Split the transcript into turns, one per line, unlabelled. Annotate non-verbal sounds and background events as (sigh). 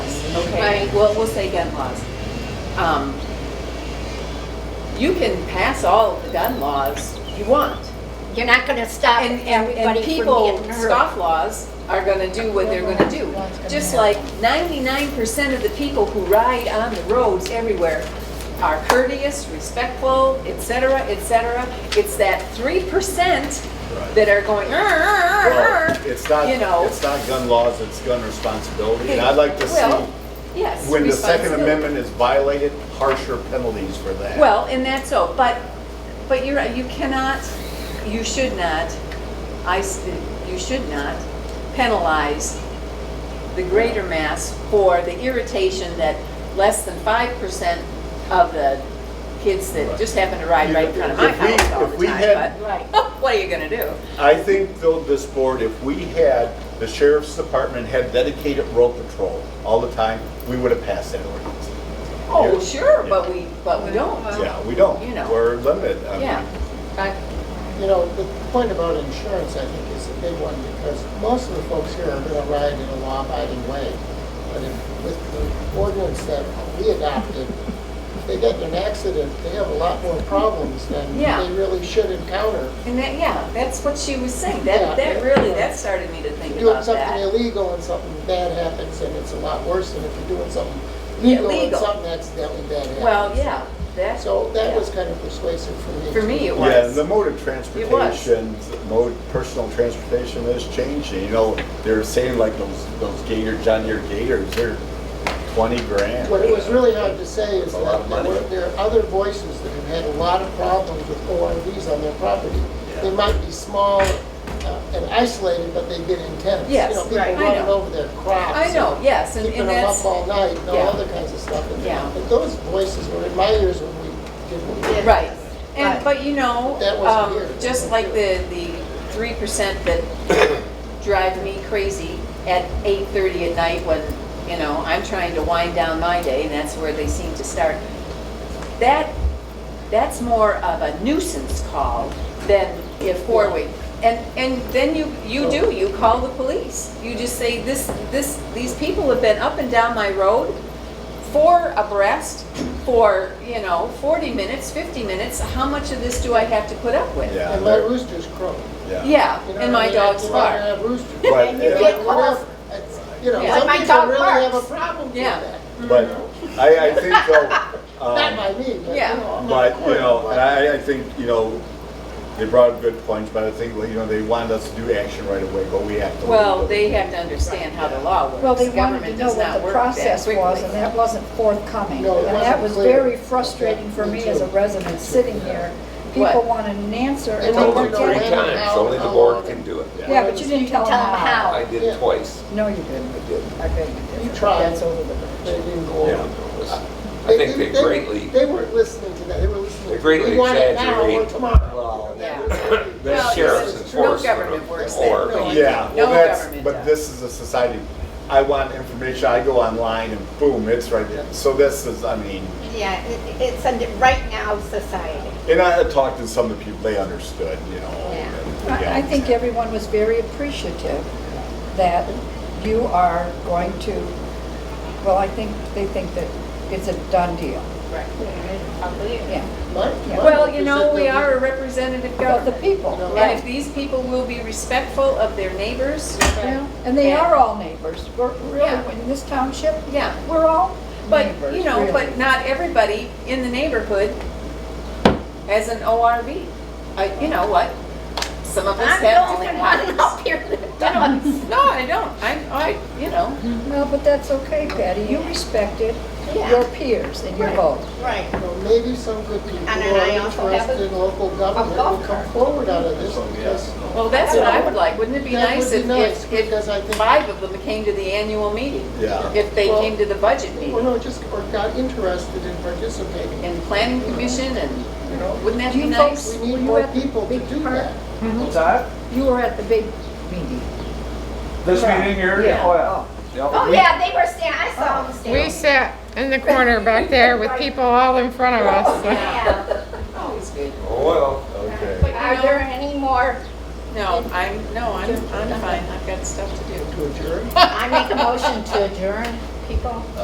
okay?
Right.
Well, we'll say gun laws. Um, You can pass all the gun laws you want.
You're not gonna stop
And, and, and
Uh, everybody from
people,
getting hurt.
scofflaws are gonna do what they're gonna do. Just like ninety-nine percent of the people who ride on the roads everywhere are courteous, respectful, et cetera, et cetera. It's that three percent that are going, "Arr, arr, arr,
Well,
arr,"
It's not,
you know.
it's not gun laws, it's gun responsibility, and I'd like to
Well,
see,
yes.
when the Second
responsibility.
Amendment is violated, harsher penalties for that.
Well, and that's so, but, but you're, right, you cannot, you should not, I, s- you should not penalize the greater mass for the irritation that less than five percent of the kids that just happen to ride right in front of my
If we-
house all
if
the
we
time,
had-
Right.
but (laughs) what are you gonna do?
I think though this board, if we had, the sheriff's department had dedicated road patrol all the time, we would have passed that ordinance.
Oh, sure, but we, but we don't.
Yeah, we don't.
You know.
We're limited. I mean,
Yeah. I-
You know, the point about insurance, I think, is a big one, because most of the folks here are gonna ride in a law-abiding way. But if- with the ordinance that we adopted, if they get in an accident, they have a lot more problems than
Yeah.
they really should encounter.
And that, yeah, that's what she was saying, that,
Yeah.
that really, that started me to think
Doing
about
something
that.
illegal and something bad happens, and it's a lot worse than if you're doing something
Yeah,
legal and
legal.
something accidentally bad happens.
Well, yeah, that's.
So that
yeah.
was kind of persuasive for me.
For me, it was.
Yeah, the mode of transportation, mode, personal transportation is changing, you know, they're saying like those, those gator, John Deere gators, they're twenty grand.
What it was really hard to say is
A lot
that
of
there
money.
were, there are other voices that have had a lot of problems with ORVs on their property.
Yeah.
They might be small uh, and isolated, but they've been intense. You
Yes,
know, people
right, I
running
know.
over their crops.
I know,
and
yes, and
Keeping
and
them
that's,
up all night and
yeah.
all other kinds of stuff. And-
Yeah.
But those voices were in my ears when we did what we did.
right. And,
Right.
but you know,
That
um,
wasn't here.
just like the, the three percent that
(coughs)
drive me crazy at eight thirty at night when, you know, I'm trying to wind down my day and that's where they seem to start. That, that's more of a nuisance call than if four-way. And, and then you, you do, you call the police. You just say, this, this, these people have been up and down my road four abreast for, you know, 40 minutes, 50 minutes. How much of this do I have to put up with?
Yeah,
And my
they're-
roosters crow.
Yeah,
You know
and
what I
my
mean?
dogs
I'd rather
bark.
have roosters.
But,
And you
uh,
get
But
caught.
whatever, it's- You know,
Yeah.
Like
some
my
people
dog
really have a
barks.
problem with
Yeah.
that.
But I, I think though.
Not
um,
by me, but you
Yeah.
know. I'm
But,
on the
you know,
court,
and I, I think, you know, they brought up good points, but I think, you know, they wanted us to do action right away, but we have to.
Well, they have to understand how the law works.
Well, they wanted to
Government
know
does
what
not
the
work that
process was,
quickly.
and that wasn't forthcoming.
No, it
And that
wasn't
was
clear.
very frustrating for me as a resident sitting here.
What?
People want an answer
They
and
want
they
Told you
don't
to
three
get it.
know.
times, only the board can do it.
Yeah, but you didn't tell them how.
I did it twice.
No, you didn't.
I did.
I bet you did.
You tried.
That's over the
They
bridge.
didn't go over.
I think they
were-
greatly,
They weren't listening to that, they were listening.
They greatly
"We want it now or
exaggerate."
Tomorrow.
Well,
You know,
yeah.
that was-
the
Well,
sheriff's
it's-
enforcement.
No government works
or-
that way.
Yeah,
No
well, that's,
government
but
does.
this is a society, I want information, I go online and boom, it's right there. So this is, I mean,
Yeah, it- it's a right now society.
and I had talked to some of the people, they understood, you know.
I
yeah.
I think everyone was very appreciative that you are going to, well, I think, they think that it's a done deal,
Right.
yeah.
My-
Yeah.
my
Well,
hope
you
is
know,
that
we
they'll
are a representative
About the
government.
people.
And if these people will be respectful of their neighbors,
Yeah, And they are all neighbors. We're
Yeah.
really, in this township,
yeah.
we're all
But,
neighbors,
you know,
really.
but not everybody in the neighborhood has an ORV. I- You know what? Some of us
I'm
have
the only
different
one
hobbies.
up (laughs) here that
You
does.
know, No, I don't. I, I, you know,
Well, but that's okay, Patty. You respected
Yeah.
your peers and your
Right.
vote.
Right.
be- you know, Maybe some good people
And
who
then
are
I also have
interested in local government
golf
will come
cart.
forward out of
Oh,
this, because
well, that's what I would like. Wouldn't it be
That would
nice
be
if,
nice,
if, if
because I think-
five of them came to the annual meeting?
Yeah.
If they
Well-
came to the budget
Well,
meeting
no, just, or got interested in participating,
and planning commission and,
you know?
wouldn't that
Do
be
you
nice?
folks-
We
Were
need
you
more
at the
people to
big
do
park?
that.
What's that?
You were at the big meeting.
This meeting here?
Yeah.
Oh, yeah.
Oh, yeah, they were standing, I saw them standing.
We sat in the corner back there with people all in front of us.
Yeah.
Always good.
Oh, well.
Okay.
But
Are
you
there
know,
any more?
no, I'm, no, I'm, I'm fine. I've got stuff to do.
To adjourn?
I make a motion to adjourn, people.